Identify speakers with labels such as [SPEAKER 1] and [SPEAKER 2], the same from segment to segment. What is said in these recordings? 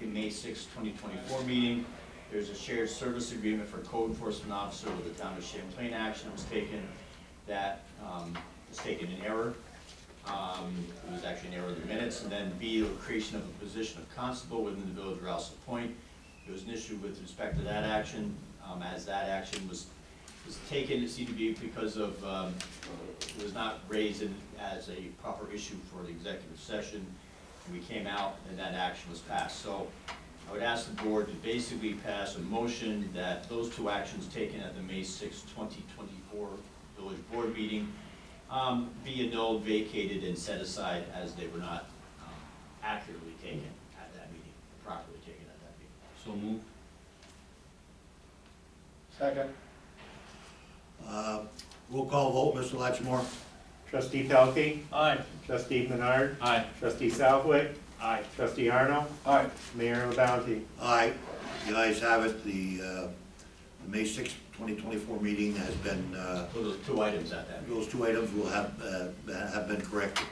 [SPEAKER 1] the May sixth, twenty twenty-four meeting. There's a shared service agreement for code enforcement officer with the town of Champlain. Action was taken that, um, was taken in error. Um, it was actually an error of the minutes. And then B, the creation of a position of constable within the village of Rouse's Point. There was an issue with respect to that action, um, as that action was, was taken, it seemed to be because of, um, it was not raised in, as a proper issue for the executive session. And we came out and that action was passed. So I would ask the board to basically pass a motion that those two actions taken at the May sixth, twenty twenty-four village board meeting um, be annulled, vacated, and set aside as they were not um, accurately taken at that meeting, properly taken at that meeting.
[SPEAKER 2] So move.
[SPEAKER 3] Second.
[SPEAKER 4] Uh, Roll call vote, Mr. Latchmore.
[SPEAKER 5] Trustee Pelkey,
[SPEAKER 2] Aye.
[SPEAKER 5] trustee Menard,
[SPEAKER 2] Aye.
[SPEAKER 5] trustee Southwick. Aye. Trustee Arno,
[SPEAKER 3] Aye.
[SPEAKER 5] Mayor LaBounty.
[SPEAKER 4] Aye. The ayes have it. The uh, the May sixth, 2024 meeting has been, uh,
[SPEAKER 1] So those two items at that meeting.
[SPEAKER 4] those two items will have, uh, have been corrected.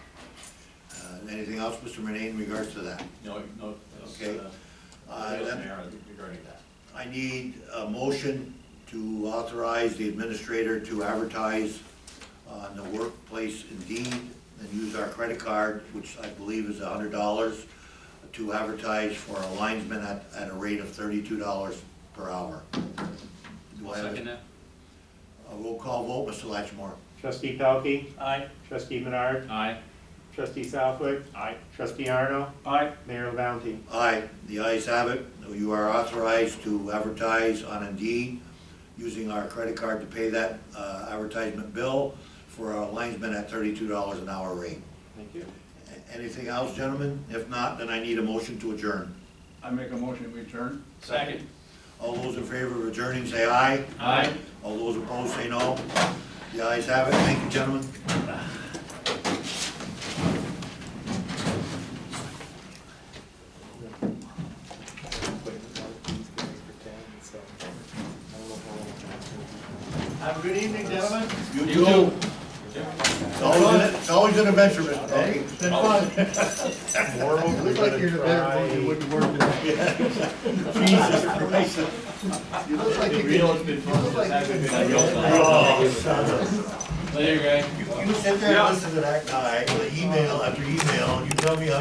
[SPEAKER 4] Uh, Anything else, Mr. Renee, in regards to that?
[SPEAKER 1] No, no, that's,
[SPEAKER 4] Okay.
[SPEAKER 1] uh,
[SPEAKER 4] Uh,
[SPEAKER 1] there's an
[SPEAKER 4] then
[SPEAKER 1] error regarding that.
[SPEAKER 4] I need a motion to authorize the administrator to advertise on the workplace Indeed and use our credit card, which I believe is hundred dollars, to advertise for a linesman at, at a rate of thirty-two dollars per hour. Do I have
[SPEAKER 2] Second
[SPEAKER 4] a
[SPEAKER 2] that.
[SPEAKER 4] a roll call vote, Mr. Latchmore?
[SPEAKER 5] Trustee Pelkey,
[SPEAKER 2] Aye.
[SPEAKER 5] trustee Menard,
[SPEAKER 2] Aye.
[SPEAKER 5] trustee Southwick. Aye. Trustee Arno,
[SPEAKER 2] Aye.
[SPEAKER 5] Mayor LaBounty.
[SPEAKER 4] Aye, the ayes have it. You are authorized to advertise on Indeed using our credit card to pay that uh, advertisement bill for a linesman at thirty-two dollars an hour rate.
[SPEAKER 5] Thank you.
[SPEAKER 4] A- Anything else, gentlemen? If not, then I need a motion to adjourn.
[SPEAKER 3] I make a motion, we adjourn.
[SPEAKER 2] Second.
[SPEAKER 4] All those in favor of adjourning, say aye.
[SPEAKER 2] Aye.
[SPEAKER 4] All those opposed, say no. The ayes have it. Thank you, gentlemen.
[SPEAKER 3] Have a good evening, gentlemen.
[SPEAKER 4] You too. It's always, an- it's always an adventure, Mr. Pelkey.
[SPEAKER 3] It's fun.
[SPEAKER 5] Moreover,
[SPEAKER 3] Looks like you're in a better mood, you
[SPEAKER 5] try-
[SPEAKER 3] wouldn't work today.
[SPEAKER 4] Jesus Christ.
[SPEAKER 3] You look like you could.
[SPEAKER 1] Real, it's been fun,
[SPEAKER 3] look like
[SPEAKER 1] it's
[SPEAKER 3] you could-
[SPEAKER 1] actually been real fun.
[SPEAKER 4] Oh,
[SPEAKER 2] Later, guys.
[SPEAKER 4] You you sit there and listen to that guy, email after email, and you tell me how